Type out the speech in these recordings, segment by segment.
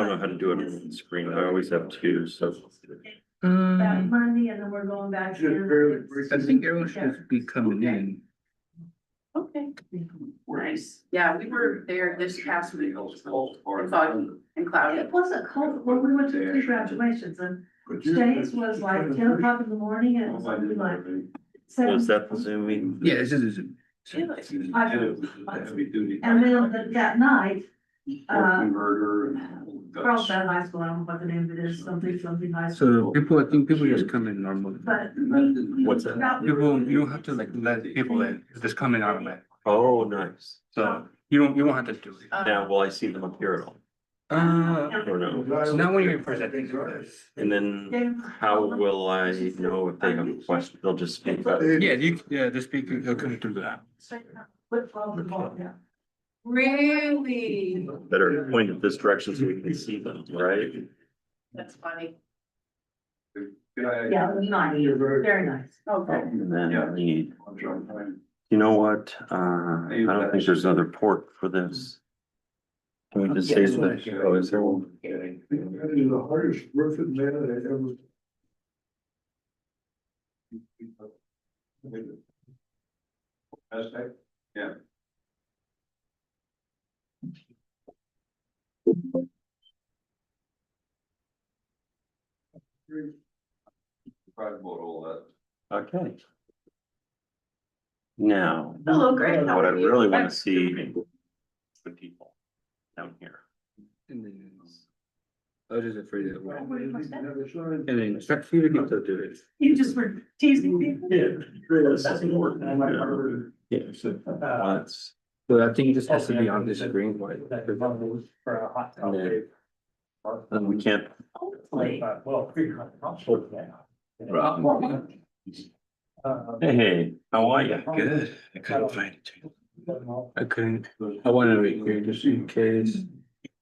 how to do it on the screen. I always have two, so. Um, Mm-hmm. That Monday and then we're going back. Just in. barely brief. It's- I think everyone should be coming in. Okay. Nice. Yeah, we were there this past week. And foggy and cloudy. It wasn't cold, when we went to three graduations and James was like ten o'clock in the morning and it Oh, was only like seven. Was that the Zoom meeting? Yeah, this is, Heavy duty. And then that- that night, uh, Converter Carl's that high school, I don't know what the name of it is, something, something high so school. people, I think people just come in normally. But What's that? about You won't, you don't have to like let people in, It's just come in automatic, Oh, nice. so you don't, you won't have to do Uh, it. Now, will I see them up here at all? Uh, Or no? so now when you're presenting. And then James- how will I know if they have a question? They'll just speak up. Yeah, you, yeah, the speaker, he'll come through that. Flip flop the ball, yeah. Really? Better point in this direction so we can see them, right? That's funny. Yeah, it was nice, very nice. Okay. And then Yeah. I need, you know what? Uh, I don't think there's another port for this. Can we just say that? Oh, is there one? That is the hardest working man I ever. Hashtag, yeah. Probably about all that. Okay. Now, Hello, Greg. How what I are you? really want to see the people down here. And then I was just afraid that. And And then start for you to get to do it. You just were teasing me. This is important. Yeah. Once, So I think it just has to be on this screen, right? For a hot and then- and we can't, Hopefully. Well, pretty hot. Uh, Rob. hey, hey, how are you? Good, I couldn't find it. I couldn't, I wanted to be here just in case.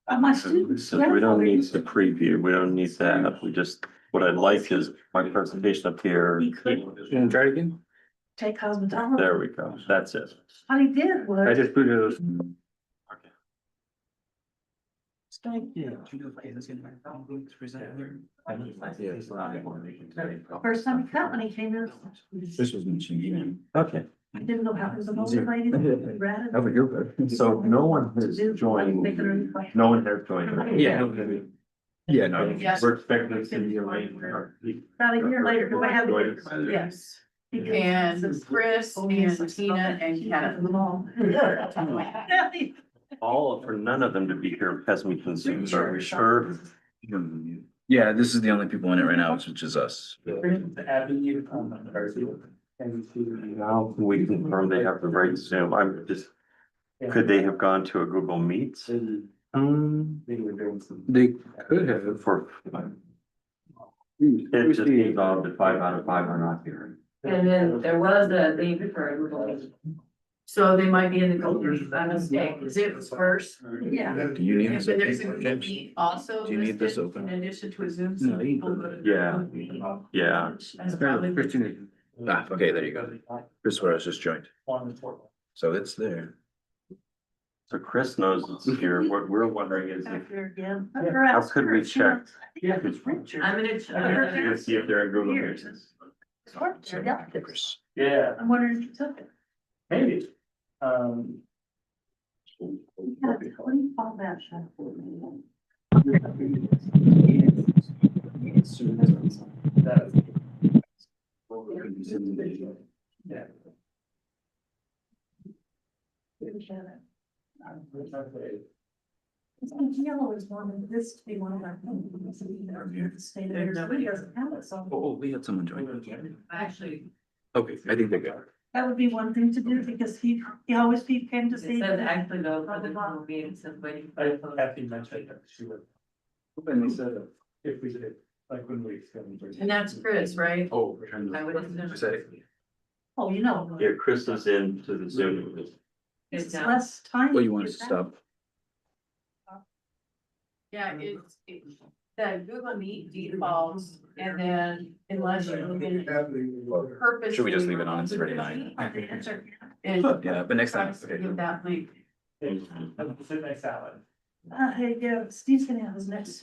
Uh, My students. So we don't need the preview, we don't need that, we just, what I'd like is my presentation up here. He couldn't You wanna try it again? take cosmetology. There we go, that's it. What he did I was, just put it. first time he cut when he came in, This was mentioned, even. Okay, I didn't know how, it was an older lady, red. and- so no one has joined, no one has joined. Yeah. no, Yeah, no. Yes. We're expecting it to be a late. About a year later, because I Joined. had. Yes. And Chris "Oh, and Tina and Kenneth. Kenneth. All, for none of them to be here has me concerned, are we sure? Yeah, this is the only people in it right now, which is us. Now, we confirm they have the right Zoom, I'm just, could they have gone to a Google Meet? Um, they could have. For, it just involved that five out of five are not here. And then there was a leave for. So they might be in the building by mistake, because it was first. Yeah. Do you need And this? so there's a open, Google James? Meet also Do you need this listed open? in addition to a Zoom. No, you can go so Yeah. people- Yeah. That's probably. Christina, Ah, okay, there you go. This is where I was just joined. So it's there. So Chris knows it's here, what we're wondering is if How could we check? Yeah. I'm gonna. I'm gonna see if they're in Google Meet. So, Chris. Yeah, I'm wondering if you took it. maybe. Um. Yeah, What do you call that? Sean? Yeah. It's like Yellow is one, and this to be one of our. State of Arizona doesn't have it, so Oh, we had someone join. Actually, Okay, I think they got it. that would be one thing to do because he, he always he came to it see. says actually though, for the Google Meet, it says waiting. for I the have phone. to mention that she would. Open this up if we did, like when we. And that's Chris, right? Oh. I would assume. I said it. Oh, you know. Here, Chris is in to the Zoom. It's It's down. less time. Well, you want us to stop? Yeah, it's, it's the Google Meet defaults and then unless you purposely. Should we just leave it on? It's remove already Google nine. Meet, And Yeah, but next time. tries to give that link. Sit next to Alan. Uh, hey, yeah, Steve's gonna have his next